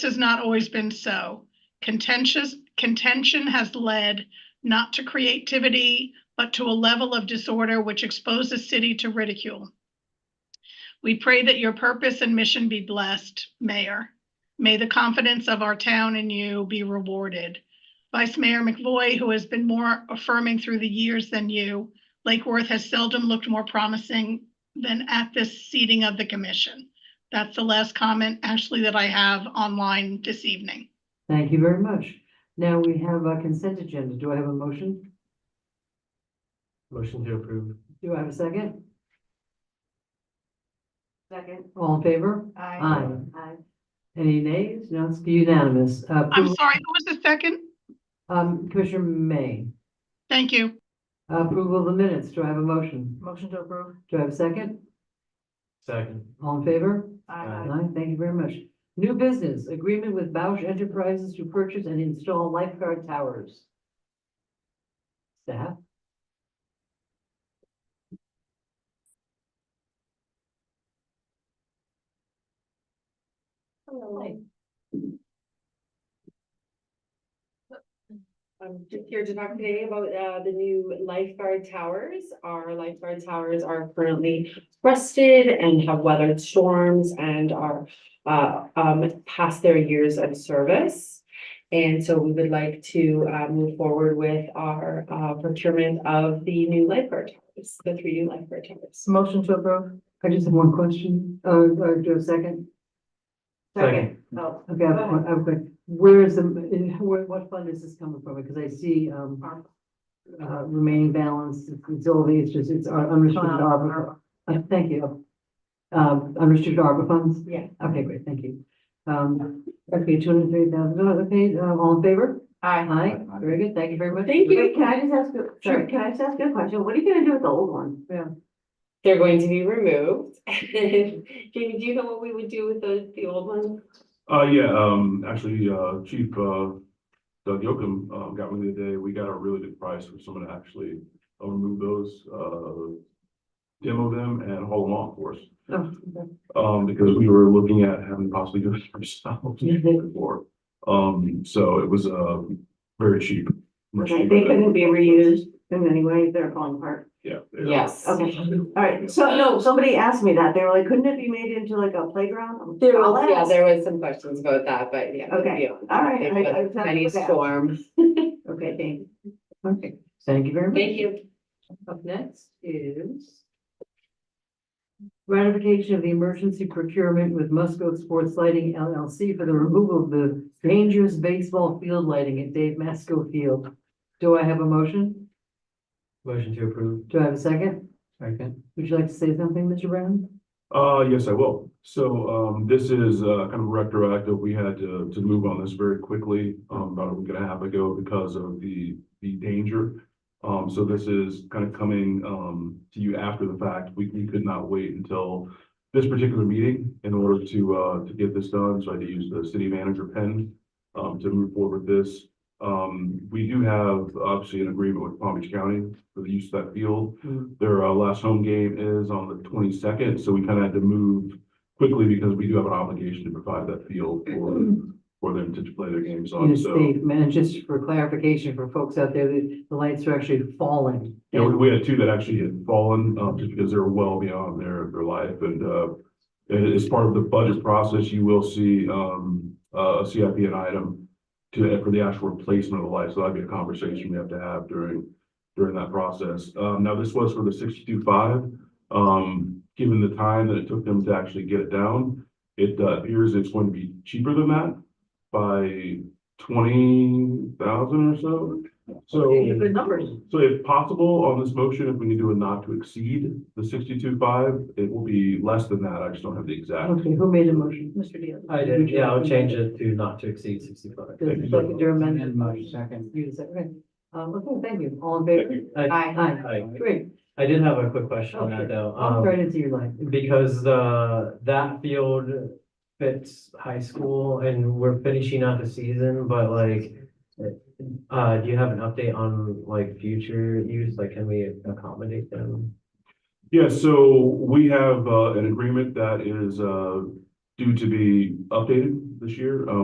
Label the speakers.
Speaker 1: has not always been so. Contentious, contention has led not to creativity, but to a level of disorder which exposes city to ridicule. We pray that your purpose and mission be blessed, Mayor. May the confidence of our town in you be rewarded. Vice Mayor McVoy, who has been more affirming through the years than you, Lake Worth has seldom looked more promising than at this seating of the commission. That's the last comment, Ashley, that I have online this evening.
Speaker 2: Thank you very much. Now we have a consent agenda. Do I have a motion?
Speaker 3: Motion to approve.
Speaker 2: Do I have a second?
Speaker 4: Second.
Speaker 2: All in favor?
Speaker 4: Aye. Aye.
Speaker 2: Any nays? No, it's unanimous. Uh,
Speaker 1: I'm
Speaker 2: approval-
Speaker 1: sorry, who was the second?
Speaker 2: Um, Commissioner May,
Speaker 1: Thank you.
Speaker 2: approval of the minutes. Do I have a motion?
Speaker 4: Motion to approve.
Speaker 2: Do I have a second?
Speaker 3: Second.
Speaker 2: All in favor?
Speaker 3: Aye.
Speaker 2: Aye, thank you very much. New business, agreement with Bausch Enterprises to purchase and install lifeguard towers. Staff?
Speaker 4: Um,
Speaker 5: I'm just here to talk today about uh the new lifeguard towers. Our lifeguard towers are currently rusted and have weathered storms and are uh um past their years of service. And so we would like to uh move forward with our uh procurement of the new lifeguard towers, the three new lifeguard towers.
Speaker 4: Motion to approve.
Speaker 2: I just have one question, uh, uh, do I have a second?
Speaker 3: Second.
Speaker 4: Oh,
Speaker 2: Okay, I've,
Speaker 4: Go ahead.
Speaker 2: I've, got- where is the, in, where, what fund is this coming from? Because I see, um,
Speaker 4: ARPA.
Speaker 2: uh, remaining balance, facility, it's just, it's our unrestricted ARPA. Uh, thank you. Um, unrestricted ARPA funds?
Speaker 4: Yeah.
Speaker 2: Okay, great, thank you. Um, okay, two hundred and thirty thousand dollars, okay, uh, all in favor?
Speaker 4: Aye.
Speaker 2: Aye, very good, thank you very much.
Speaker 5: Thank you.
Speaker 4: Wait, can I just ask, you- sure,
Speaker 2: Sorry.
Speaker 4: can I just ask you a question? What are you gonna do with the old one?
Speaker 5: They're going to be removed. Jamie, do you know what we would do with the the old ones?
Speaker 3: Uh, yeah, um, actually, uh, Chief, uh, Doug Yokum, uh, got with me today. We got a really good price for someone to actually uh, remove those, uh, demo them and haul them off for us.
Speaker 2: Oh,
Speaker 3: Um, because we were looking at having possibly do it ourselves
Speaker 2: Mhm.
Speaker 3: before. Um, so it was, uh, very cheap. much
Speaker 4: Okay,
Speaker 3: cheaper
Speaker 4: they
Speaker 3: than-
Speaker 4: couldn't be reused in any way, they're falling apart.
Speaker 3: Yeah. they are.
Speaker 5: Yes.
Speaker 4: Okay, all right, so no, somebody asked me that, they were like, couldn't it be made into like a playground? I'm like,
Speaker 5: There
Speaker 4: I'll
Speaker 5: was, yeah,
Speaker 4: ask.
Speaker 5: there was some questions about that, but yeah.
Speaker 4: Okay, all right, I- I just had to
Speaker 5: Any
Speaker 4: look at it.
Speaker 5: storm.
Speaker 4: Okay, thank you.
Speaker 2: Okay, thank you very much.
Speaker 5: Thank you.
Speaker 2: Up next is ratification of the emergency procurement with Musco Sports Lighting LLC for the removal of the dangerous baseball field lighting at Dave Masco Field. Do I have a motion?
Speaker 6: Motion to approve.
Speaker 2: Do I have a second?
Speaker 6: Second.
Speaker 2: Would you like to say something, Mr. Brown?
Speaker 3: Uh, yes, I will. So, um, this is, uh, kind of retroactive. We had to, to move on this very quickly, um, about a week and a half ago because of the, the danger. Um, so this is kind of coming, um, to you after the fact. We, we could not wait until this particular meeting in order to, uh, to get this done. So I had to use the city manager pen, um, to move forward with this. Um, we do have obviously an agreement with Palm Beach County for the use of that field. Their uh, last home game is on the twenty-second, so we kind of had to move quickly because we do have an obligation to provide that field for, for them to play their games
Speaker 2: You know,
Speaker 3: on, so.
Speaker 2: Steve, man, just for clarification for folks out there, the, the lights are actually falling.
Speaker 3: Yeah, we- we had two that actually had fallen, uh, just because they're well beyond their, their life, and, uh, a- as part of the budget process, you will see, um, uh, a CIP an item to, for the actual replacement of the lights, so that'd be a conversation we have to have during, during that process. Um, now, this was for the sixty-two five, um, given the time that it took them to actually get it down, it uh, appears it's going to be cheaper than that by twenty thousand or so, so.
Speaker 2: Good numbers.
Speaker 3: So if possible, on this motion, if we can do a not to exceed the sixty-two five, it will be less than that. I just don't have the exact.
Speaker 2: Okay, who made a motion?
Speaker 4: Mr. Diaz.
Speaker 6: I did, yeah, I'll change it to not to exceed sixty-five.
Speaker 2: Does
Speaker 3: Thank you.
Speaker 2: the seconder amend?
Speaker 6: And my second.
Speaker 2: You said, okay. Um, okay, thank you. All in favor?
Speaker 5: Aye.
Speaker 2: Aye.
Speaker 6: Aye.
Speaker 2: Great.
Speaker 6: I did have a quick question on
Speaker 2: Okay.
Speaker 6: that though,
Speaker 2: I'll
Speaker 6: um,
Speaker 2: thread it to your line.
Speaker 6: because, uh, that field fits high school and we're finishing out the season, but like, uh, do you have an update on like future use, like can we accommodate them?
Speaker 3: Yeah, so we have, uh, an agreement that is, uh, due to be updated this year. Um,